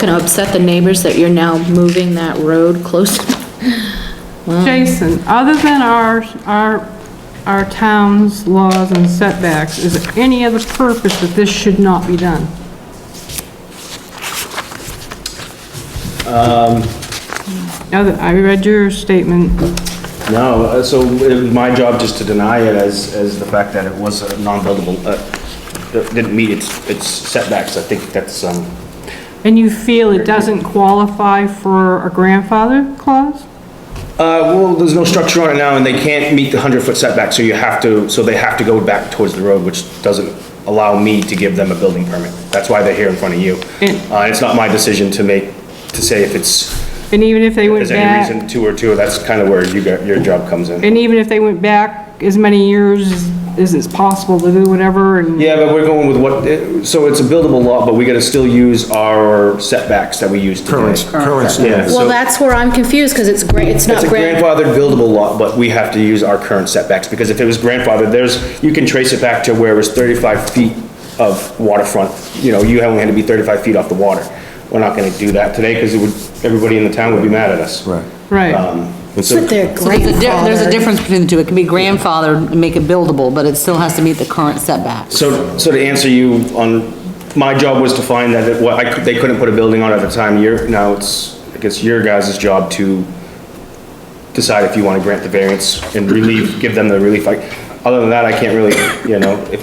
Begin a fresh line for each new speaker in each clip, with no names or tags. gonna upset the neighbors that you're now moving that road close.
Jason, other than our, our, our town's laws and setbacks, is there any other purpose that this should not be done?
Um.
Other, I read your statement,
No, uh, so it was my job just to deny it as, as the fact that it was a non-buildable, uh, it didn't meet its, its setbacks, I think that's, um,
and you feel it doesn't qualify for a grandfather clause?
uh, well, there's no structure on it now, and they can't meet the hundred-foot setback, so you have to, so they have to go back towards the road, which doesn't allow me to give them a building permit, that's why they're here in front of you.
And-
Uh, it's not my decision to make, to say if it's,
And even if they went
there's any
back,
reason to or two, that's kind of where you got, your job comes in.
and even if they went back as many years as it's possible to do whatever, and
Yeah, but we're going with what, eh, so it's a buildable lot, but we gotta still use our setbacks that we use today.
Current, current
Yeah,
standards.
Well,
so
that's where I'm confused, cause it's great, it's not
it's a
grand.
grandfathered buildable lot, but we have to use our current setbacks, because if it was grandfathered, there's, you can trace it back to where it was thirty-five feet of waterfront, you know, you only had to be thirty-five feet off the water. We're not gonna do that today, because it would, everybody in the town would be mad at us.
Right.
Um,
right,
But they're
So There's a di- there's a
grandfathered.
difference between the two. It can be grandfathered and make it buildable, but it still has to meet the current setbacks.
So, so to answer you on, my job was to find that, it- what, I, could- they couldn't put a building on at the time, your, now it's, I guess your guys' job to decide if you wanna grant the variance and relieve, give them the relief, like, other than that, I can't really, you know, if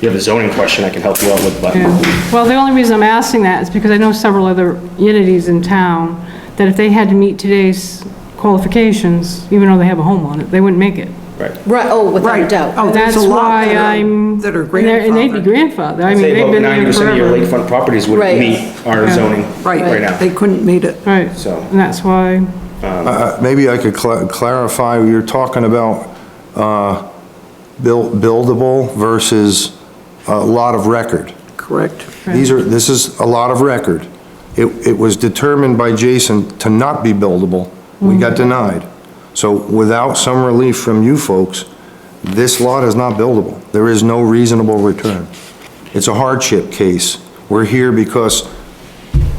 you have a zoning question, I can help you out with, but.
Yeah. Well, the only reason I'm asking that is because I know several other entities in town that if they had to meet today's qualifications, even though they have a home on it, they wouldn't make it.
Right.
Right, oh, without a doubt.
Oh, there's
That's
a lot
why
that are-
I'm.
that are
and they're- And they'd be grandfathered. I mean,
Say
they've
about
been there
ninety percent of your
forever.
lakefront properties would
Right.
meet our zoning right now.
They couldn't meet it.
Right,
So-
and that's why,
Uh, Maybe I could cla- clarify, you're talking about uh, buil- buildable versus a lot of record.
Correct.
These are, this is a lot of record. It, it was determined by Jason to not be buildable. We got denied. So without some relief from you folks, this lot is not buildable. There is no reasonable return. It's a hardship case. We're here because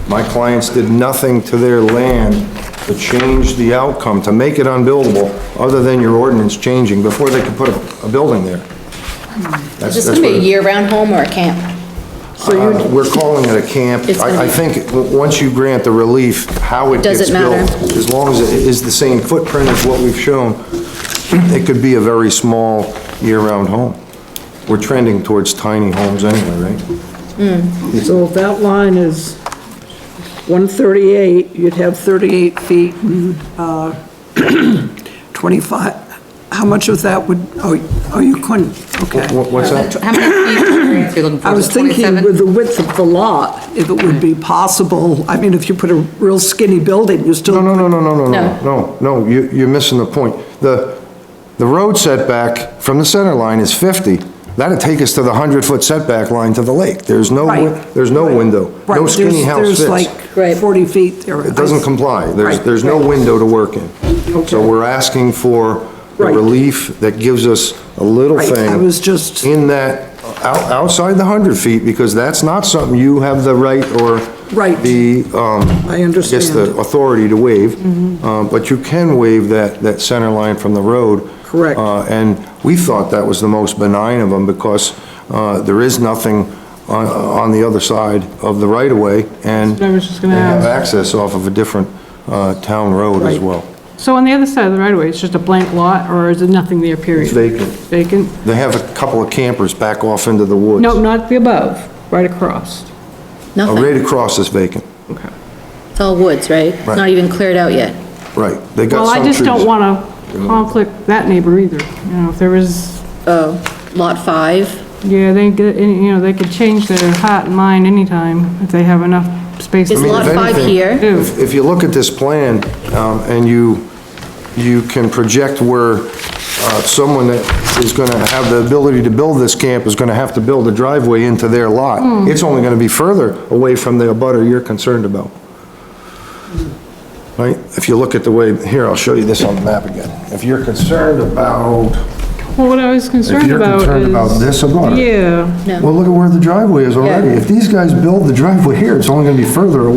my clients did nothing to their land to change the outcome, to make it unbuildable, other than your ordinance changing before they could put a, a building there.
Is
That's-
this
that's
gonna be
what
a
it-
year-round home or a camp?
uh, We're calling it a camp.
It's gonna
I, I
be-
think, w- once you grant the relief, how it
Does
gets
it matter?
built, as long as it is the same footprint as what we've shown, it could be a very small year-round home. We're trending towards tiny homes anyway, right?
So if that line is 138, you'd have 38 feet and uh, 25. How much of that would, oh, oh, you couldn't, okay.
Wha- What's that?
How many feet of variance are you looking for?
I was
Just
thinking
27?
with the width of the lot, if it would
Mm-hmm.
be possible, I mean, if you put a real skinny building, you still.
No, no, no, no, no, no,
No.
no, no, no, you, you're missing the point. The, the road setback from the center line is 50. That'd take us to the 100-foot setback line to the lake. There's no, win-
Right.
there's no window.
Right,
No skinny
there's-
house fits.
There's like
Right.
40 feet there.
It doesn't comply. There's,
Right,
there's no
right.
window to work in. So
Okay.
we're asking for the
Right.
relief that gives us a little
Right, I
thing.
was just-
In that, out- outside the 100 feet, because that's not something you have the right or.
Right.
The, um.
I
Guess the
understand. Mm-hmm.
authority to waive. Uh, But you can waive that, that center line from the road.
Correct.
Uh, and we thought that was the most benign of them because uh, there is nothing on, on the other side of the right-of-way, and
what I was just gonna
they have
ask.
access off of a different uh, town road as
Right.
well.
so on the other side of the right of way, it's just a blank lot or is it nothing there, period?
vacant.
Vacant?
They have a couple of campers back off into the woods.
No, not the above, right across.
Uh,
Nothing,
Right across is vacant,
Okay.
it's all woods, right? It's
Right.
not even cleared out yet.
right. They got
Well, I
some
just don't
trees.
wanna conflict that neighbor either, you know, if there was
Oh, lot five?
Yeah, they, get- you know, they could change their heart and mind anytime if they have enough space.
Is
I mean,
lot
if
five
anything-
here?
If if you look at this plan, um, and you, you can project where uh, someone that is gonna have the ability to build this camp is gonna have to build a driveway into their
Hmm.
lot. It's only gonna be further away from the abutter you're concerned about. Right? If you look at the way, here, I'll show you this on the map again. If you're concerned about,
Well, what I was concerned
you're
about is...
concerned about this abutter.
Yeah.
well, look at where the driveway is already. If these guys build the driveway here, it's only gonna be further away.